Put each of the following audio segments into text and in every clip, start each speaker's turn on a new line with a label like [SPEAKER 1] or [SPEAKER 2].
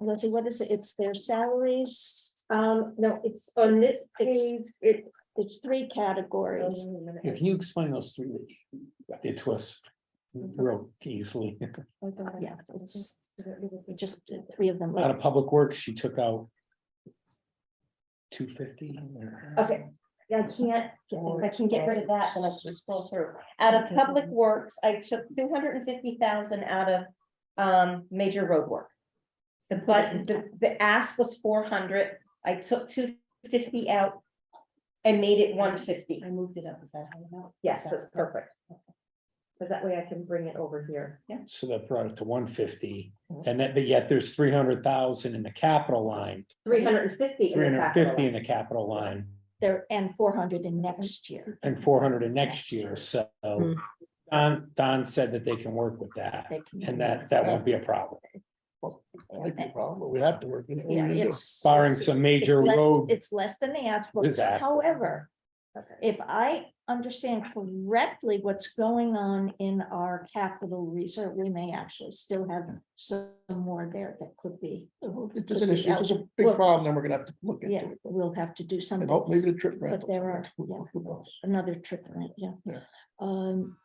[SPEAKER 1] Lizzie, what is it? It's their salaries.
[SPEAKER 2] Um, no, it's on this page, it.
[SPEAKER 1] It's three categories.
[SPEAKER 3] Yeah, Can you explain those three that did to us real easily?
[SPEAKER 1] Yeah, it's just three of them.
[SPEAKER 3] Out of public works, she took out two fifty.
[SPEAKER 2] Okay, I can't, if I can get rid of that, then I can scroll through. Out of public works, I took two hundred and fifty thousand out of um major road work. The but the the ask was four hundred, I took two fifty out. And made it one fifty.
[SPEAKER 4] I moved it up, is that how you
[SPEAKER 2] Yes, that's perfect. Cause that way I can bring it over here.
[SPEAKER 3] So that brought it to one fifty, and that, but yet there's three hundred thousand in the capital line,
[SPEAKER 2] Three hundred and fifty.
[SPEAKER 3] three hundred fifty in the capital line,
[SPEAKER 1] There and four hundred in next year.
[SPEAKER 3] and four hundred in next year, so.
[SPEAKER 2] Hmm.
[SPEAKER 3] Don, Don said that they can work with that,
[SPEAKER 1] They can-
[SPEAKER 3] and that, that won't be a problem,
[SPEAKER 5] Might be a problem, but we have to work. in it. What are we
[SPEAKER 1] Yeah,
[SPEAKER 5] gonna do?
[SPEAKER 1] it's.
[SPEAKER 3] barring
[SPEAKER 1] it's-
[SPEAKER 3] some major
[SPEAKER 1] it's less-
[SPEAKER 3] road.
[SPEAKER 1] It's less than the asphalt.
[SPEAKER 3] Disaster.
[SPEAKER 1] However, if I understand correctly what's going on in our capital reserve, we may actually still have some more there that could be.
[SPEAKER 5] If there's an issue, if there's a
[SPEAKER 1] Well-
[SPEAKER 5] big problem, then we're gonna have to look
[SPEAKER 1] Yeah,
[SPEAKER 5] into it.
[SPEAKER 1] we'll have to do
[SPEAKER 5] And
[SPEAKER 1] something.
[SPEAKER 5] hope maybe the trip rental.
[SPEAKER 1] there are, yeah.
[SPEAKER 5] Who knows?
[SPEAKER 1] another trick on it, yeah.
[SPEAKER 5] Yeah.
[SPEAKER 1] Um,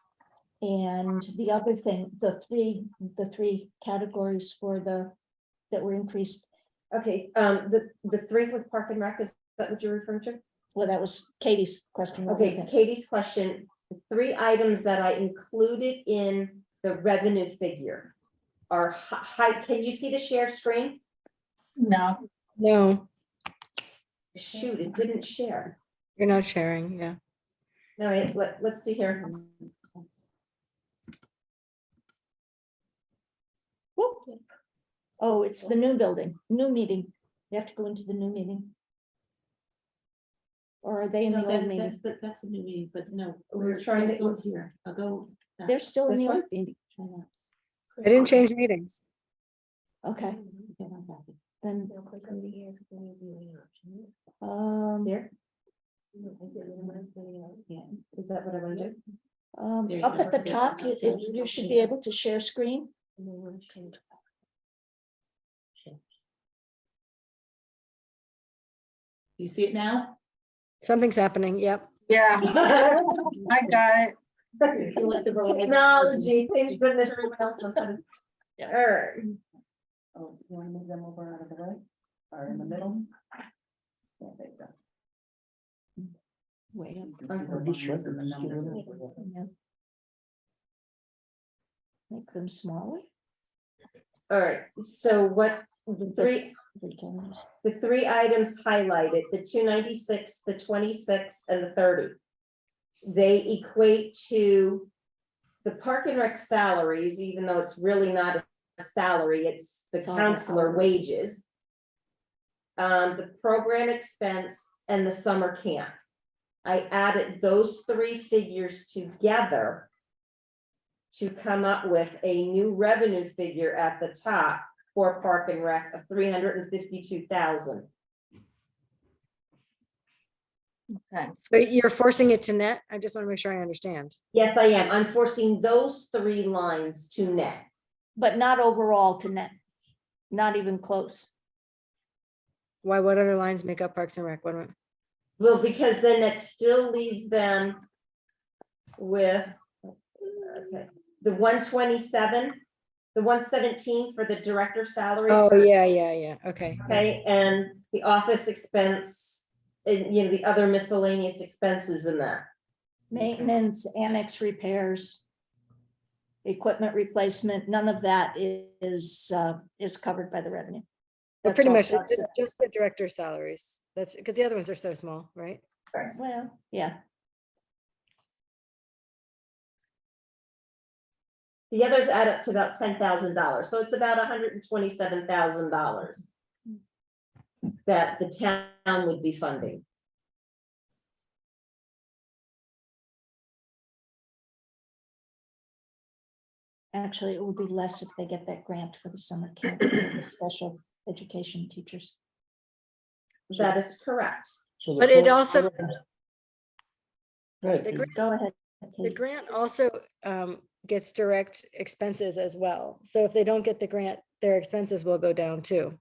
[SPEAKER 1] and the other thing, the three, the three categories for the, that were increased,
[SPEAKER 2] Okay, um, the the three with Park and Rec, is that what you're referring to?
[SPEAKER 1] well, that was Katie's question. what do you
[SPEAKER 2] Okay,
[SPEAKER 1] think?
[SPEAKER 2] Katie's question, the three items that I included in the revenue figure are hi- hi, can you see the share screen?
[SPEAKER 4] No,
[SPEAKER 6] No,
[SPEAKER 2] Shoot, it didn't share.
[SPEAKER 6] you're not sharing, yeah.
[SPEAKER 2] No, wait, let, let's see here.
[SPEAKER 1] Whoop. Oh, it's the new building, new meeting. You have to go into the new meeting. Or are they in
[SPEAKER 4] No,
[SPEAKER 1] the old
[SPEAKER 4] that's,
[SPEAKER 1] meeting?
[SPEAKER 4] that's, the- that's the new meeting, but no.
[SPEAKER 2] We're trying to-
[SPEAKER 4] Go here, I'll go. that.
[SPEAKER 1] They're still in
[SPEAKER 2] This
[SPEAKER 1] the old
[SPEAKER 2] one?
[SPEAKER 1] meeting.
[SPEAKER 6] I didn't change meetings.
[SPEAKER 1] Okay,
[SPEAKER 4] Yeah, I'm happy.
[SPEAKER 1] then,
[SPEAKER 4] Now click over here for the viewing options.
[SPEAKER 1] um,
[SPEAKER 2] There,
[SPEAKER 4] No, I did it when I was filling
[SPEAKER 5] uh,
[SPEAKER 4] out. Yeah.
[SPEAKER 2] is that what I want to do?
[SPEAKER 1] um,
[SPEAKER 4] There's
[SPEAKER 1] up
[SPEAKER 4] no-
[SPEAKER 1] at the top, you, it- you should be able to share screen.
[SPEAKER 4] And then we'll change. Change. Do You see it now?
[SPEAKER 6] Something's happening, yep.
[SPEAKER 7] Yeah, I got it.
[SPEAKER 2] Technology, thank goodness everyone else knows how to.
[SPEAKER 1] Yeah.
[SPEAKER 2] Alright,
[SPEAKER 4] Oh, you wanna move them over out of the way, or in the middle? Yeah, there you go.
[SPEAKER 1] Wait.
[SPEAKER 4] You can see the lines and the numbers.
[SPEAKER 1] Yeah. Make them smaller.
[SPEAKER 2] alright, so what, the three,
[SPEAKER 1] We can just-
[SPEAKER 2] the three items highlighted, the two ninety-six, the twenty-six, and the thirty. They equate to the park and rec salaries, even though it's really not a salary, it's the
[SPEAKER 1] It's all the
[SPEAKER 2] counselor
[SPEAKER 1] salaries.
[SPEAKER 2] wages. Um, the program expense and the summer camp. I added those three figures together to come up with a new revenue figure at the top for Park and Rec of three hundred and fifty-two thousand.
[SPEAKER 7] Okay.
[SPEAKER 6] So you're forcing it to net? I just want to make sure I understand.
[SPEAKER 2] Yes, I am. I'm forcing those three lines to net.
[SPEAKER 1] But not overall to net, not even close.
[SPEAKER 6] Why, what other lines make up Parks and Rec? What am I-
[SPEAKER 2] Well, because then that still leaves them with okay, the one twenty-seven, the one seventeen for the director's salaries.
[SPEAKER 6] Oh,
[SPEAKER 2] for-
[SPEAKER 6] yeah, yeah, yeah, okay.
[SPEAKER 2] Okay, and the office expense, and you know, the other miscellaneous expenses in that.
[SPEAKER 1] Maintenance, annex repairs. Equipment replacement, none of that i- is, uh, is covered by the revenue.
[SPEAKER 6] But
[SPEAKER 1] That's
[SPEAKER 6] pretty
[SPEAKER 1] all
[SPEAKER 6] much,
[SPEAKER 1] subset.
[SPEAKER 6] it's just the director salaries. That's, because the other ones are so small, right?
[SPEAKER 1] Well, yeah,
[SPEAKER 2] The others add up to about ten thousand dollars, so it's about hundred and twenty-seven thousand dollars that the town would be funding.
[SPEAKER 1] actually, it would be less if they get that grant for the summer camp, for the special education teachers.
[SPEAKER 2] That is correct.
[SPEAKER 5] So the
[SPEAKER 6] But it
[SPEAKER 5] pro-
[SPEAKER 6] also,
[SPEAKER 5] Go ahead,
[SPEAKER 6] the
[SPEAKER 5] Katie.
[SPEAKER 6] grant,
[SPEAKER 1] Go ahead.
[SPEAKER 6] the
[SPEAKER 1] Katie.
[SPEAKER 6] grant also um, gets direct expenses as well. So if they don't get the grant, their expenses will go down too.